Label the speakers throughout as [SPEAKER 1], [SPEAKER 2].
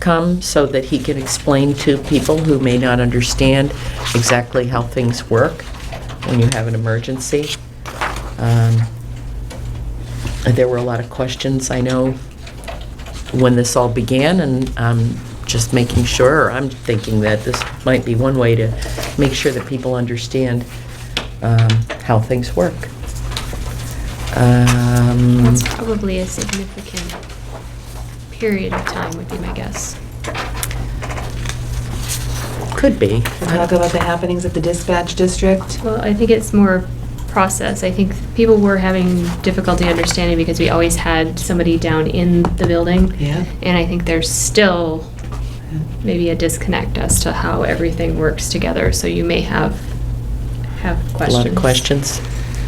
[SPEAKER 1] come so that he can explain to people who may not understand exactly how things work when you have an emergency. Um, There were a lot of questions, I know, when this all began, and I'm just making sure, or I'm thinking that this might be one way to make sure that people understand um, how things work. Um,
[SPEAKER 2] That's probably a significant period of time, would be my guess.
[SPEAKER 1] Could be.
[SPEAKER 3] We Talk about the happenings at the dispatch district.
[SPEAKER 2] Well, I think it's more process. I think people were having difficulty understanding because we always had somebody down in the building.
[SPEAKER 3] Yeah.
[SPEAKER 2] And I think there's still maybe a disconnect as to how everything works together, so you may have, have
[SPEAKER 1] A
[SPEAKER 2] questions.
[SPEAKER 1] lot of questions.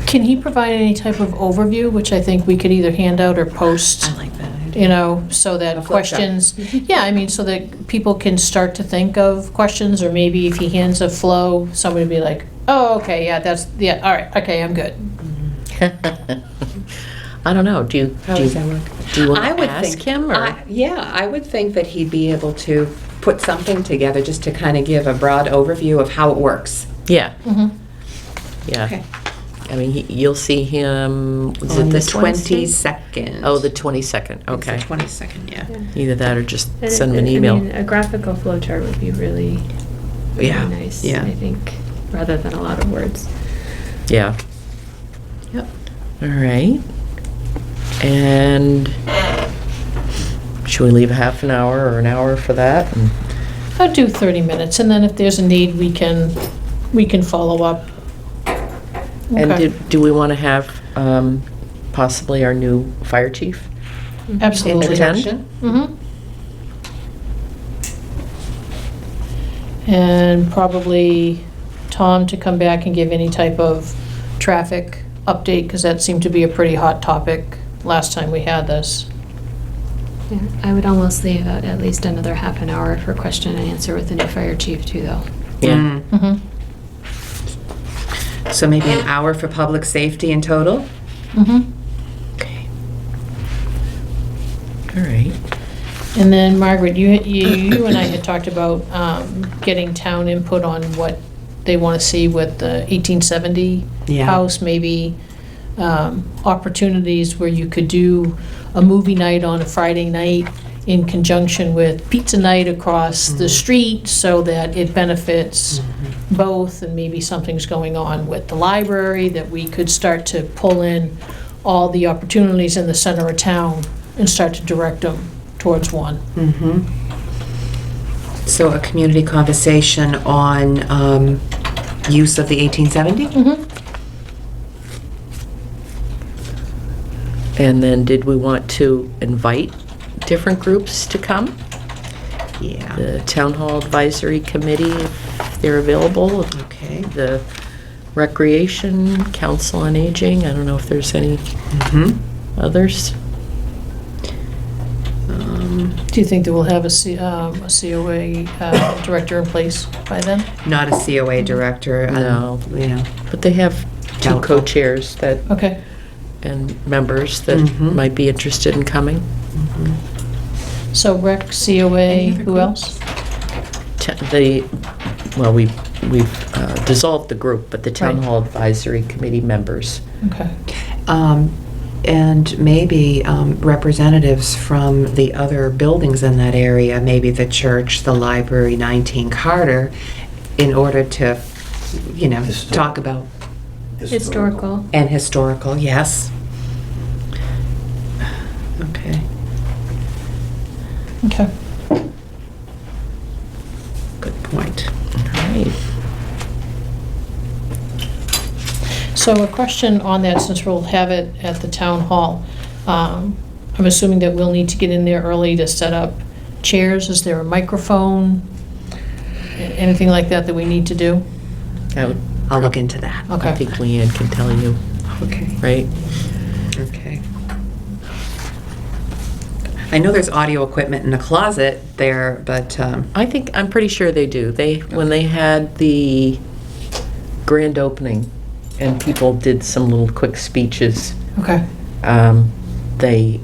[SPEAKER 4] Can he provide any type of overview, which I think we could either hand out or post,
[SPEAKER 3] I like that idea.
[SPEAKER 4] you know, so
[SPEAKER 1] A
[SPEAKER 4] that
[SPEAKER 1] flip chart.
[SPEAKER 4] questions, yeah, I mean, so that people can start to think of questions, or maybe if he hands a flow, somebody would be like, oh, okay, yeah, that's, yeah, all right, okay, I'm good.
[SPEAKER 1] I don't know, do you,
[SPEAKER 3] How
[SPEAKER 1] do you,
[SPEAKER 3] does that work?
[SPEAKER 1] do you want
[SPEAKER 3] I
[SPEAKER 1] to
[SPEAKER 3] would
[SPEAKER 1] ask
[SPEAKER 3] think-
[SPEAKER 1] him, or?
[SPEAKER 3] I- Yeah, I would think that he'd be able to put something together just to kind of give a broad overview of how it works.
[SPEAKER 1] Yeah,
[SPEAKER 3] Mm-hmm.
[SPEAKER 4] Mhm.
[SPEAKER 1] yeah. I mean, he- you'll see him, is
[SPEAKER 3] On
[SPEAKER 1] it
[SPEAKER 3] the
[SPEAKER 1] this Wednesday?
[SPEAKER 3] 22nd.
[SPEAKER 1] Oh, the 22nd,
[SPEAKER 3] It's the
[SPEAKER 1] okay.
[SPEAKER 3] 22nd, yeah.
[SPEAKER 2] Yeah.
[SPEAKER 1] Either that or just
[SPEAKER 2] And
[SPEAKER 1] send him
[SPEAKER 2] it-
[SPEAKER 1] an
[SPEAKER 2] I mean,
[SPEAKER 3] uh,
[SPEAKER 1] email.
[SPEAKER 2] A graphical flow chart would be really, really
[SPEAKER 1] Yeah,
[SPEAKER 2] nice,
[SPEAKER 3] yeah.
[SPEAKER 2] I think, rather than a lot of words.
[SPEAKER 1] Yeah,
[SPEAKER 3] Yep.
[SPEAKER 1] all right. And should we leave a half an hour or an hour for that? And-
[SPEAKER 4] I'll do 30 minutes, and then if there's a need, we can, we can follow up.
[SPEAKER 1] And
[SPEAKER 4] Okay.
[SPEAKER 1] do- do we want to have um, possibly our new fire chief?
[SPEAKER 4] Absolutely.
[SPEAKER 1] Attend?
[SPEAKER 3] Introduction?
[SPEAKER 4] Mhm. And probably Tom to come back and give any type of traffic update, because that seemed to be a pretty hot topic last time we had this.
[SPEAKER 2] Yeah, I would almost leave out at least another half an hour for question and answer with the new fire chief too, though.
[SPEAKER 1] Yeah,
[SPEAKER 3] Mm.
[SPEAKER 4] Mhm.
[SPEAKER 3] So maybe an hour for public safety in total?
[SPEAKER 4] Mhm.
[SPEAKER 1] okay. All right.
[SPEAKER 4] And then Margaret, you, you you and I had talked about um, getting town input on what they want to see with the 1870
[SPEAKER 3] Yeah.
[SPEAKER 4] house, maybe um, opportunities where you could do a movie night on a Friday night in conjunction with pizza night across the street so that it benefits both, and maybe something's going on with the library, that we could start to pull in all the opportunities in the center of town and start to direct them towards one.
[SPEAKER 3] Mm-hmm. So a community conversation on um, use of the 1870?
[SPEAKER 1] And then did we want to invite different groups to come?
[SPEAKER 3] Yeah.
[SPEAKER 1] The Town Hall Advisory Committee, if they're available,
[SPEAKER 3] Okay.
[SPEAKER 1] the Recreation, Council on Aging, I don't know if there's any
[SPEAKER 3] Mm-hmm.
[SPEAKER 1] others.
[SPEAKER 3] Um,
[SPEAKER 4] Do you think that we'll have a C- um, a COA uh, director in place by then?
[SPEAKER 3] Not a COA director. um,
[SPEAKER 1] No.
[SPEAKER 3] You know,
[SPEAKER 1] But they have two
[SPEAKER 3] Doubtful.
[SPEAKER 1] co-chairs that,
[SPEAKER 4] Okay. Mm-hmm.
[SPEAKER 1] and members that
[SPEAKER 3] Mhm.
[SPEAKER 1] might be interested in coming.
[SPEAKER 3] Mm-hmm.
[SPEAKER 4] So rec,
[SPEAKER 3] Any
[SPEAKER 4] COA,
[SPEAKER 3] other
[SPEAKER 4] who else?
[SPEAKER 1] T- The, well, we, we've uh, dissolved the group, but the Town
[SPEAKER 4] Right.
[SPEAKER 1] Hall Advisory Committee members.
[SPEAKER 4] Okay.
[SPEAKER 3] um, and maybe um, representatives from the other buildings in that area, maybe the church, the library, 19 Carter, in order to, you know,
[SPEAKER 5] Histor-
[SPEAKER 3] talk about,
[SPEAKER 2] Historical.
[SPEAKER 3] and historical, yes. Okay.
[SPEAKER 4] Okay.
[SPEAKER 3] Good point.
[SPEAKER 1] All right.
[SPEAKER 4] So a question on that, since we'll have it at the town hall. Um, I'm assuming that we'll need to get in there early to set up chairs. Is there a microphone? A- Anything like that that we need to do?
[SPEAKER 1] I would-
[SPEAKER 3] I'll look into that.
[SPEAKER 1] I
[SPEAKER 4] Okay.
[SPEAKER 1] think Leanne can tell you,
[SPEAKER 3] Okay.
[SPEAKER 1] right?
[SPEAKER 3] Okay. I know there's audio equipment in the closet there, but, um,
[SPEAKER 1] I think, I'm pretty sure they do. They, when they had the grand opening and people did some little quick speeches,
[SPEAKER 4] Okay.
[SPEAKER 1] um, they,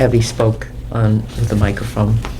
[SPEAKER 1] Evie spoke on, with the microphone.